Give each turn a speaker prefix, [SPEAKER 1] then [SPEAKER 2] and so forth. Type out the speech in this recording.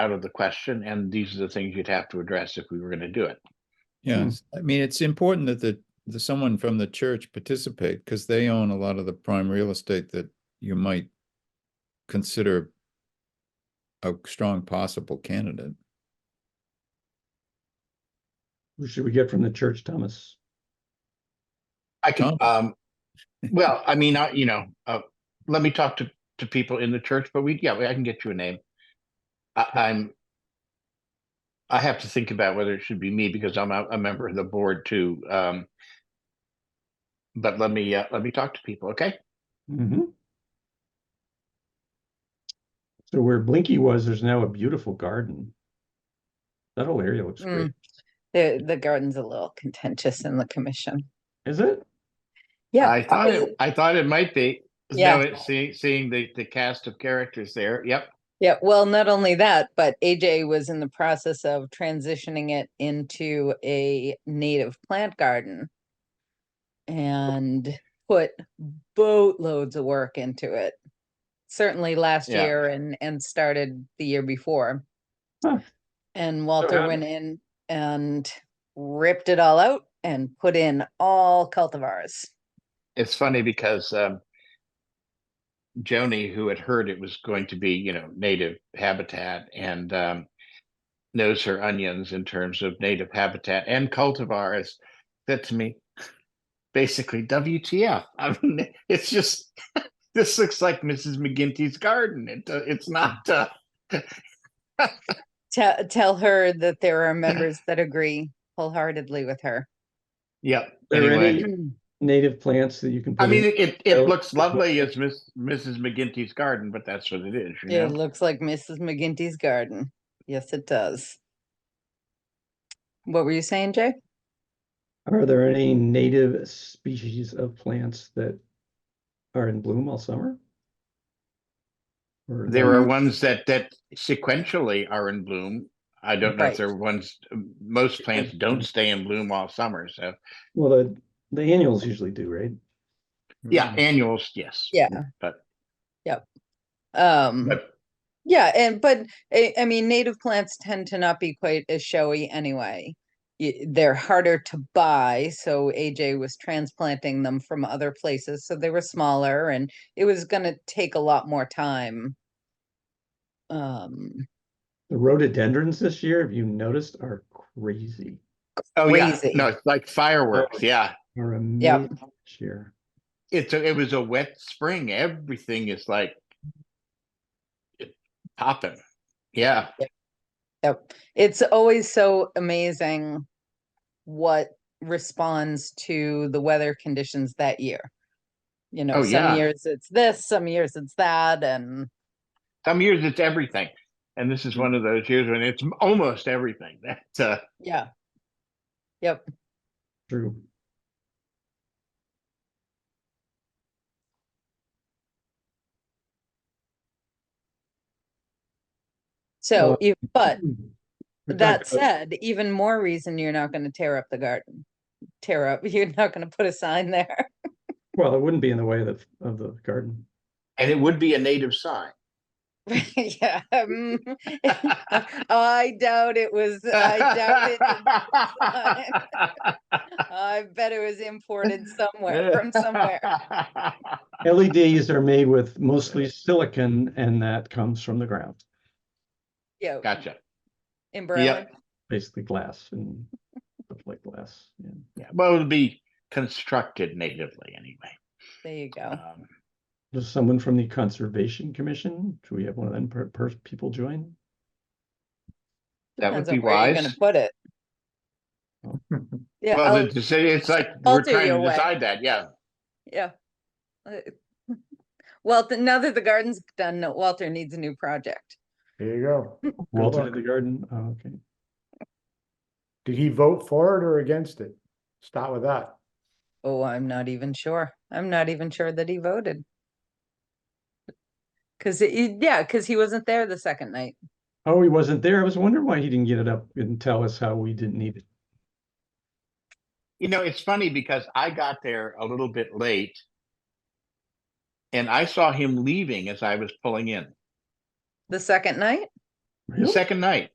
[SPEAKER 1] out of the question, and these are the things you'd have to address if we were gonna do it.
[SPEAKER 2] Yeah,
[SPEAKER 3] Hmm.
[SPEAKER 2] it's- I mean, it's important that the, the someone from the church participate, because they own a lot of the prime real estate that you might consider a strong possible candidate.
[SPEAKER 3] Who should we get from the church, Thomas?
[SPEAKER 1] I can,
[SPEAKER 2] Oh.
[SPEAKER 1] um, well, I mean, I, you know, uh, let me talk to, to people in the church, but we, yeah, I can get you a name. I, I'm, I have to think about whether it should be me because I'm a, a member of the board too. Um, but let me, uh, let me talk to people, okay?
[SPEAKER 3] Mhm. So where Blinky was, there's now a beautiful garden. That whole area looks great,
[SPEAKER 4] Mm.
[SPEAKER 1] Hmm.
[SPEAKER 4] The, the garden's a little contentious in the commission.
[SPEAKER 3] is it?
[SPEAKER 4] Yeah.
[SPEAKER 1] I thought
[SPEAKER 4] because-
[SPEAKER 1] it, I thought it might be. So
[SPEAKER 4] Yeah.
[SPEAKER 1] it- Seeing, seeing the, the cast of characters there, yep.
[SPEAKER 4] Yeah, well, not only that, but AJ was in the process of transitioning it into a native plant garden. And put boatloads of work into it. Certainly last
[SPEAKER 1] Yeah.
[SPEAKER 4] year and, and started the year before.
[SPEAKER 3] Huh.
[SPEAKER 4] And Walter
[SPEAKER 3] how-
[SPEAKER 4] went in and ripped it all out and put in all cultivars.
[SPEAKER 1] it's funny because um, Joni, who had heard it was going to be, you know, native habitat and um, knows her onions in terms of native habitat and cultivars, said to me, basically, WTF. I mean, it's just, this looks like Mrs. McGinty's garden. It, do- it's not, uh,
[SPEAKER 4] Tell, tell her that there are members that agree wholeheartedly with her.
[SPEAKER 1] yep.
[SPEAKER 3] There
[SPEAKER 1] anyway.
[SPEAKER 3] any- Native plants that you can.
[SPEAKER 1] I
[SPEAKER 3] put
[SPEAKER 1] mean,
[SPEAKER 3] in?
[SPEAKER 1] it, it, it
[SPEAKER 3] Oh.
[SPEAKER 1] looks lovely as Miss, Mrs. McGinty's garden, but that's what it is. You know?
[SPEAKER 4] It looks like Mrs. McGinty's garden. Yes, it does. What were you saying, Jay?
[SPEAKER 3] Are there any native species of plants that are in bloom all summer? Or
[SPEAKER 1] There are
[SPEAKER 4] Mhm.
[SPEAKER 1] ones that that sequentially are in bloom. I don't know if
[SPEAKER 4] Right.
[SPEAKER 1] there are ones, most plants don't stay in bloom all summer, so,
[SPEAKER 4] Mm-hmm.
[SPEAKER 3] Well, the, the annuals usually do, right?
[SPEAKER 1] yeah, annuals, yes.
[SPEAKER 4] Yeah.
[SPEAKER 1] but-
[SPEAKER 4] Yep. Um,
[SPEAKER 1] But
[SPEAKER 4] yeah, and, but, I, I mean, native plants tend to not be quite as showy anyway. Y- They're harder to buy, so AJ was transplanting them from other places, so they were smaller and it was gonna take a lot more time. Um,
[SPEAKER 3] The rhododendrons this year, if you noticed, are crazy,
[SPEAKER 1] Oh, yeah,
[SPEAKER 4] Crazy.
[SPEAKER 1] no, it's like
[SPEAKER 4] Oh.
[SPEAKER 1] fireworks, yeah.
[SPEAKER 3] are amazing this year.
[SPEAKER 1] It's, a- it was a wet spring, everything is like it- popping, yeah.
[SPEAKER 4] Yep. It's always so amazing what responds to the weather conditions that year. You know,
[SPEAKER 1] Oh,
[SPEAKER 4] some
[SPEAKER 1] yeah.
[SPEAKER 4] years it's this, some years it's that, and
[SPEAKER 1] Some years it's everything, and this is one of those years when it's m- almost everything, that's, uh,
[SPEAKER 4] yeah.
[SPEAKER 3] True.
[SPEAKER 4] So, e- but
[SPEAKER 3] Hmm. We talked
[SPEAKER 4] that
[SPEAKER 3] about-
[SPEAKER 4] said, even more reason you're not going to tear up the garden. Tear up, you're not going to put a sign there.
[SPEAKER 3] Well, it wouldn't be in the way of, of the garden.
[SPEAKER 1] and it would be a native sign.
[SPEAKER 4] yeah. mm, I doubt it was, I doubt it. I bet it was imported somewhere from somewhere.
[SPEAKER 3] LEDs E are made with mostly silicon and that comes from the ground,
[SPEAKER 4] Yeah.
[SPEAKER 1] Gotcha.
[SPEAKER 4] In Berlin.
[SPEAKER 3] basically glass and stuff like glass. yeah.
[SPEAKER 1] Yeah, well, it'll be constructed natively anyway.
[SPEAKER 4] There you go.
[SPEAKER 1] Um,
[SPEAKER 3] Does someone from the Conservation Commission, should we have one of them per, per people join?
[SPEAKER 1] That would
[SPEAKER 4] Depends
[SPEAKER 1] be
[SPEAKER 4] on where you're gonna
[SPEAKER 1] wise.
[SPEAKER 4] Put it. Yeah, oh,
[SPEAKER 1] Well,
[SPEAKER 4] I'll-
[SPEAKER 1] the deci- it's like
[SPEAKER 4] I'll
[SPEAKER 1] we're
[SPEAKER 4] do
[SPEAKER 1] trying
[SPEAKER 4] your
[SPEAKER 1] to
[SPEAKER 4] way.
[SPEAKER 1] decide that, yeah.
[SPEAKER 4] yeah. Uh, Well, th- now that the garden's done, no- Walter needs a new project.
[SPEAKER 5] There you go.
[SPEAKER 3] Walter
[SPEAKER 5] luck.
[SPEAKER 3] the garden, oh, okay.
[SPEAKER 5] Did he vote for it or against it? Start with that.
[SPEAKER 4] Oh, I'm not even sure. I'm not even sure that he voted. Cause it, yeah, cause he wasn't there the second night.
[SPEAKER 3] Oh, he wasn't there. I was wondering why he didn't get it up and tell us how we didn't need it.
[SPEAKER 1] You know, it's funny because I got there a little bit late and I saw him leaving as I was pulling in.
[SPEAKER 4] The second night?
[SPEAKER 1] second night.